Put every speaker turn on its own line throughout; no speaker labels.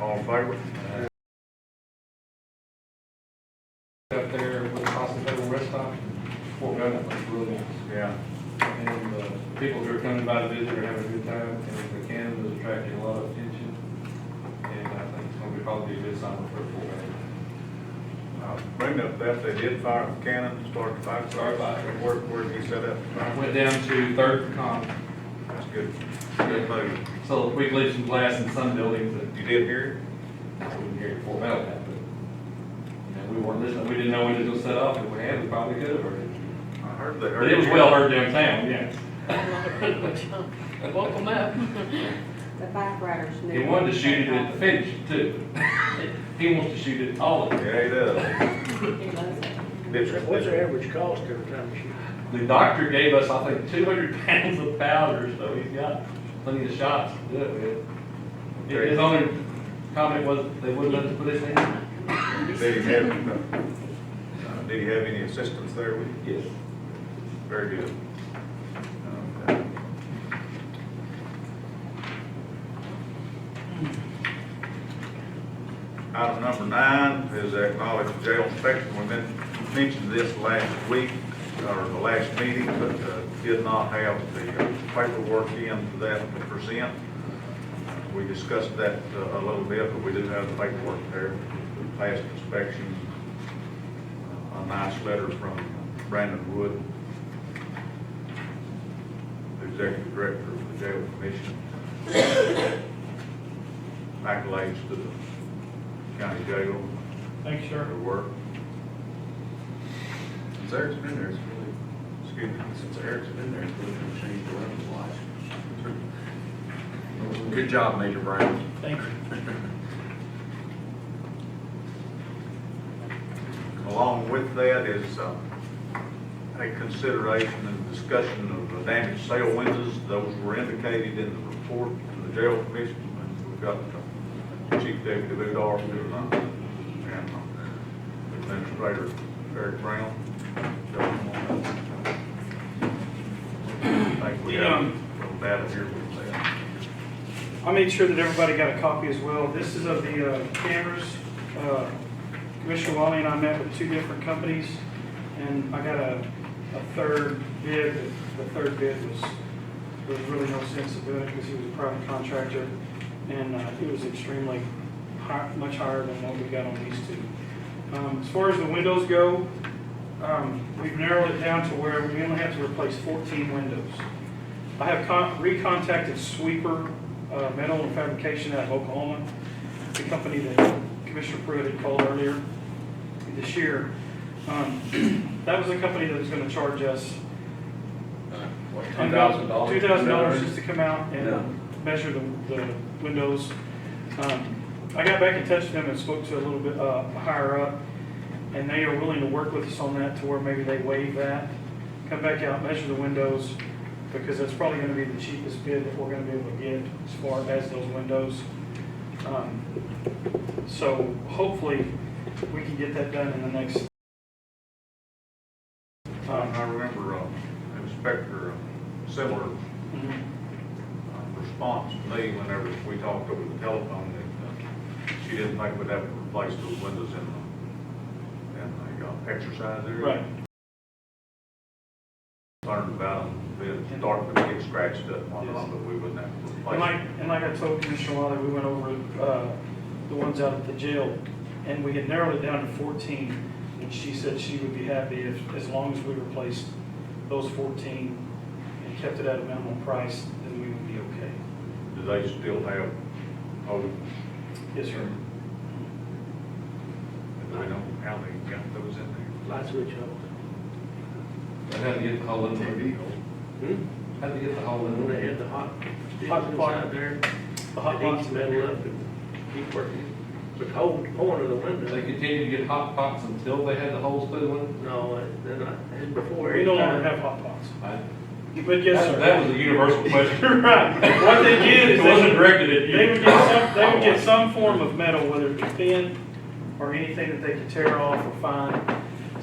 All in favor?
Up there with the hospital rest stop, Fort Gunner was really nice.
Yeah.
And, uh, people who are coming by to visit are having a good time, and the Buchanan is attracting a lot of attention. And I think it's gonna be probably a good summer for Fort Gunner.
Uh, Bring up that, they did fire the cannon, start the fire.
Started by-
Where, where did he set up? the fire?
Went down to Third um, and Con,
That's good. Good move.
so we leave some glass in some buildings that
You did hear
I wouldn't hear it before Bell happened. You know, we weren't listening, we didn't know when it was set off, if we had, we probably could have heard it.
it? I heard they heard.
But it was well heard downtown, yeah.
Welcome up.
The firefighters knew.
He wanted to shoot it at the finish too. He wants to shoot it all of it.
Yeah, he does.
He loves it.
Did you-
What's your average cost every time you shoot?
The doctor gave us, I think, two hundred pounds of powder, so he's got plenty of shots to do it with. His his only comment was, they wouldn't let us put his name in.
Did he have, uh, did he have any assistance there with you?
Yes.
Very good. Um, Item number nine is acknowledge jail inspection. We men- mentioned this last week, or the last meeting, but uh, did not have the uh, paperwork in for that to present. We discussed that uh, a little bit, but we do have the paperwork there, past inspection, a nice letter from Brandon Wood, the executive director of the jail commission. Accolades to the county jail,
Thank you,
for their work.
Since Eric's been there, it's really,
Excuse me.
since Eric's been there, it's really gonna change the way of life. Good job, Major Brown.
Thank you.
Along with that is uh, a consideration and discussion of the damaged sail windows. Those were indicated in the report to the jail commission. and We've got uh, Chief Deputy Lou Darby and uh, Administrator Eric Brown. I think we have a little data here with that.
I made sure that everybody got a copy as well. This is of the uh, cameras. Uh, Commissioner Wally and I met with two different companies, and I got a, a third bid. The third bid was, there was really no sense of doing it because he was a private contractor, and uh, it was extremely high, much higher than what we got on these two. Um, As far as the windows go, um, we've narrowed it down to where we only have to replace 14 windows. I have con- recontacted Sweeper uh, Metal and Fabrication out of Oklahoma, the company that Commissioner Pruitt had called earlier this year. Um, That was the company that was gonna charge us
What,
Two thousand dollars? just to come out
No.
and measure the, the windows. Um, I got back in touch with them and spoke to a little bit, uh, higher up, and they are willing to work with us on that to where maybe they waive that, come back out, measure the windows, because that's probably gonna be the cheapest bid that we're gonna be able to get as far as those windows. Um, So hopefully, we can get that done in the next.
Um,
time.
I remember uh, Inspector uh, Similar
Mhm.
uh, response to me whenever we talked over the telephone that uh, she didn't think we'd have to replace those windows in the, in the uh, exercise area.
Right.
Learned about them, they'd start to get scratched up and whatnot, but we wouldn't have to
And like,
replace them.
and like I told Commissioner Wiley, we went over, uh, the ones out at the jail, and we had narrowed it down to fourteen, and she said she would be happy if, as long as we replaced those fourteen and kept it at a minimum price, then we would be okay.
Do they still have, oh,
Yes, sir.
do we know how they got those in there?
Light switch on.
I had to get the hole in there.
Hmm?
Had to get the hole in
When
there.
they had the hot sticks
Hot pot.
inside there,
The hot
it heats
box.
the metal up and keep working. But hold, point of the
They
window,
continued to get hot pots until they had the holes through the window.
no, they're not, it's before.
We no longer
every time.
have hot pots.
I-
But yes,
uh, That
sir.
that was a universal question.
Right, what they did is
It
they
wasn't directed at you.
They would get some, they would get some form of metal, whether it be thin or anything that they could tear off or find,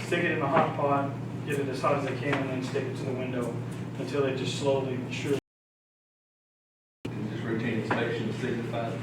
stick it in a hot pot, get it as hot as they can, and then stick it to the window until they just slowly, but surely
Just routine inspection signified.